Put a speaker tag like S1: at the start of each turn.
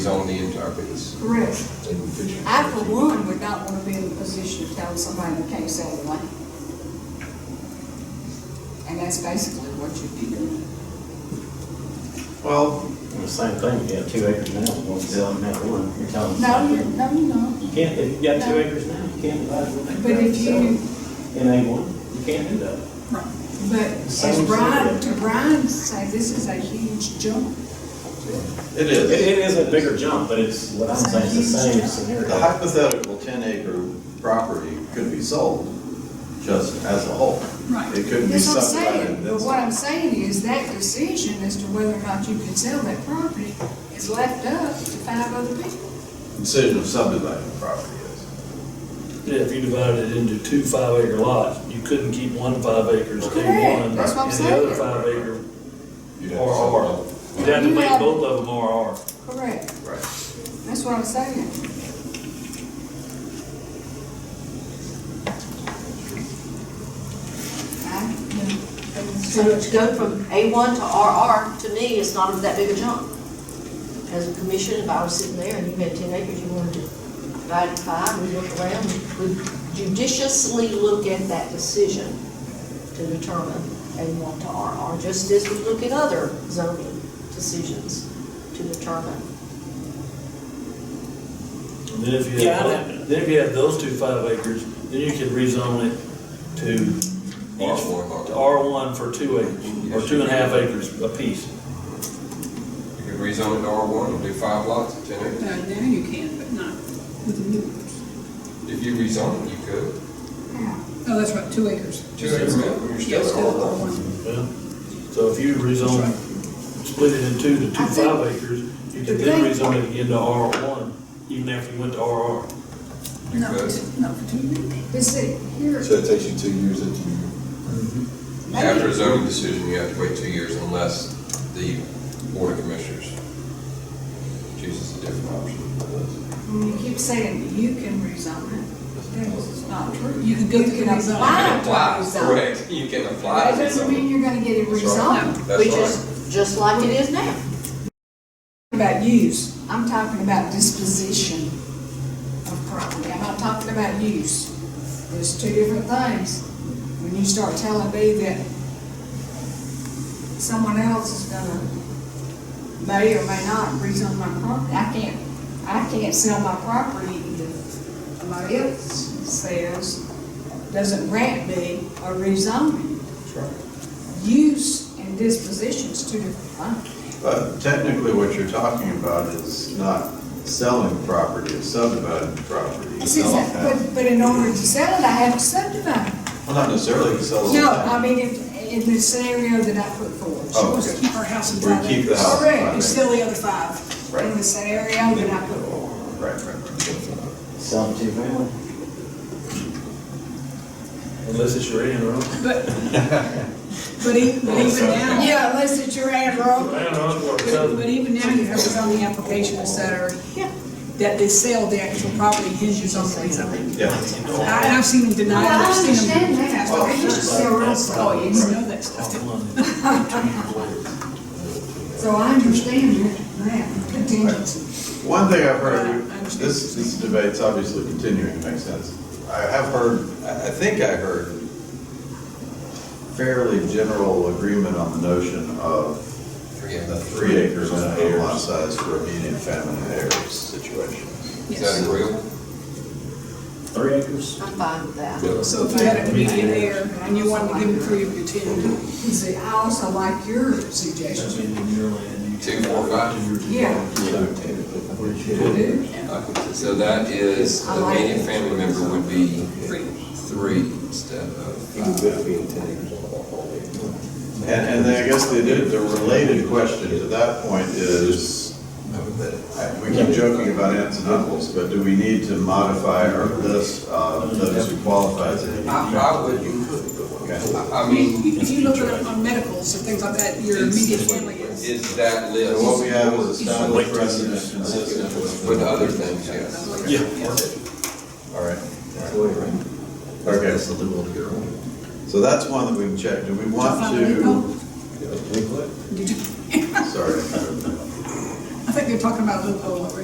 S1: on the entire piece.
S2: Correct.
S1: They would fit you.
S2: I, for one, would not want to be in the position of telling somebody they can't sell the land. And that's basically what you'd be doing.
S3: Well,
S4: The same thing, you have two acres now, you won't sell them that one, you're telling them.
S2: No, you're,
S4: something.
S2: no, you're not.
S4: You can't, if you've got two acres now, you can't divide it. with
S2: But if you-
S4: In A one, you can't do that.
S2: But as
S4: Same
S2: Brian,
S4: scenario.
S2: to Brian's say, this is a huge jump.
S3: it
S4: It,
S3: is.
S4: it is a bigger jump, but it's, what I'm saying, it's the same
S3: The
S4: scenario.
S3: hypothetical ten acre property could be sold just as a whole.
S2: Right.
S3: It couldn't be
S2: That's what I'm saying,
S3: subdivided.
S2: but what I'm saying is that decision as to whether or not you can sell that property is left up to five other people.
S3: Decision of subdividing the property is.
S5: Yeah, if you divided it into two five acre lots, you couldn't keep one five acres, keep
S2: Correct,
S5: one, and
S2: that's what I'm
S5: the other
S2: saying.
S5: five acre,
S3: You'd have to
S5: RR.
S3: subdivide.
S5: You'd have to
S2: You
S5: make
S2: have-
S5: both of them RR.
S2: Correct,
S3: Right.
S2: that's what I'm saying. I,
S6: So to go from A1 to RR, to me, is not that big a jump. As a commission, if I was sitting there and you had 10 acres, you wanted to divide it five, we look around, we judiciously look at that decision to determine A1 to RR, just as we look at other zoning decisions to determine.
S5: And then if you
S4: Yeah, I'd
S5: have,
S4: have-
S5: then if you have those two five acres, then you could rezone it to each,
S1: R1.
S5: to R one for two acres, or two and a half acres apiece.
S1: You could rezone it to R one and do five lots of ten acres.
S7: Uh, now you can, but not with the new ones.
S1: If you rezone it, you could.
S7: Oh, that's right, two acres.
S1: Two acres, you're
S7: Yeah,
S1: still at R one.
S5: Yeah. So if you rezone, split it in two to two
S2: I think-
S5: five acres, you could
S2: The
S5: then
S2: thing-
S5: rezone it again to R one, even after you went to RR.
S1: You
S7: Not for
S1: could.
S7: two- Not for two acres.
S2: but see, here,
S8: So it takes you two years that you,
S1: After a zoning decision, you have to wait two years unless the board of commissioners chooses a different option.
S2: when you keep saying you can rezone it, that's not true.
S7: You can go through
S2: You
S7: and
S2: can
S7: rezone.
S1: You
S2: apply
S1: can
S2: to
S1: apply,
S2: rezone.
S1: correct, you can apply.
S2: That doesn't mean you're gonna get it
S1: That's
S2: rezoned.
S1: right.
S6: Which
S1: That's right.
S6: is just like it is now.
S2: About use, I'm talking about disposition of property, I'm not talking about use. There's two different things. When you start telling me that someone else is gonna, may or may not rezone my property, I can't, I can't sell my property if somebody else says, doesn't grant me a rezoning. Use and disposition is two different things.
S3: But uh, technically, what you're talking about is not selling property, it's subdividing the property.
S2: It's exact- But, but in order to sell it, I have to subdivide. it.
S3: Well, not necessarily to sell the
S2: No, I
S3: land.
S2: mean, if, in the scenario that I put forward.
S3: Oh,
S7: She wants to
S3: okay.
S7: keep her house in
S3: Or
S7: five
S3: keep the
S7: acres.
S3: house in
S2: Correct,
S3: five
S7: And
S3: acres.
S7: sell the other five.
S2: In the scenario that I put forward.
S3: Right, right, right.
S4: Sell them to your family.
S5: Unless it's your in, right?
S7: But, but e- but even now.
S2: Yeah, unless it's your ad roll.
S5: I don't know, it's
S7: But
S5: worth
S7: but
S5: it.
S7: even now, you have zoning applications that are, that they sell the actual property, hinges on rezoning.
S3: Yeah.
S7: I- And I've seen them
S2: No,
S7: deny,
S2: I
S7: I've seen them.
S2: understand that, but I used to sell real
S7: Oh, you
S2: estate.
S7: know that stuff.
S5: Come on.
S2: So I understand that, that contingency.
S3: One thing I've heard,
S7: Right, I understand.
S3: this, this debate's obviously continuing to make sense. I have heard, I I think I heard fairly general agreement on the notion of
S1: Three
S3: the
S1: acres.
S3: three acres and a lot size for immediate family heirs situation.
S1: Is that agreeable?
S4: Three acres?
S6: I'm fine with that.
S7: So if you had an immediate heir and you wanted to give them three of your ten,
S2: See, I also like your suggestion.
S5: That's in your land. You
S1: Two, four, five.
S2: Yeah.
S1: Okay, So that is, the immediate family member would be three instead of,
S8: you better be in ten acres on the whole acre.
S3: And, and then I guess the, the related question to that point is, I- we keep joking about aunts and uncles, but do we need to modify our list of those who qualify as immediate?
S1: I, I would,
S3: Okay.
S1: I I
S7: I mean,
S1: mean,
S7: if you look at on medicals and things like that, your immediate family is.
S1: is that
S3: So what
S1: list
S3: we have is established precedent consistent with.
S1: with other things, yes.
S3: All right.
S8: That's the way, right?
S3: Okay.
S8: That's the little to get around.
S3: So that's one that we can check. Do we want
S7: Five acre.
S3: to,
S8: Yeah, we put-
S7: Did you,
S3: sorry.
S2: I think they're talking about a loophole over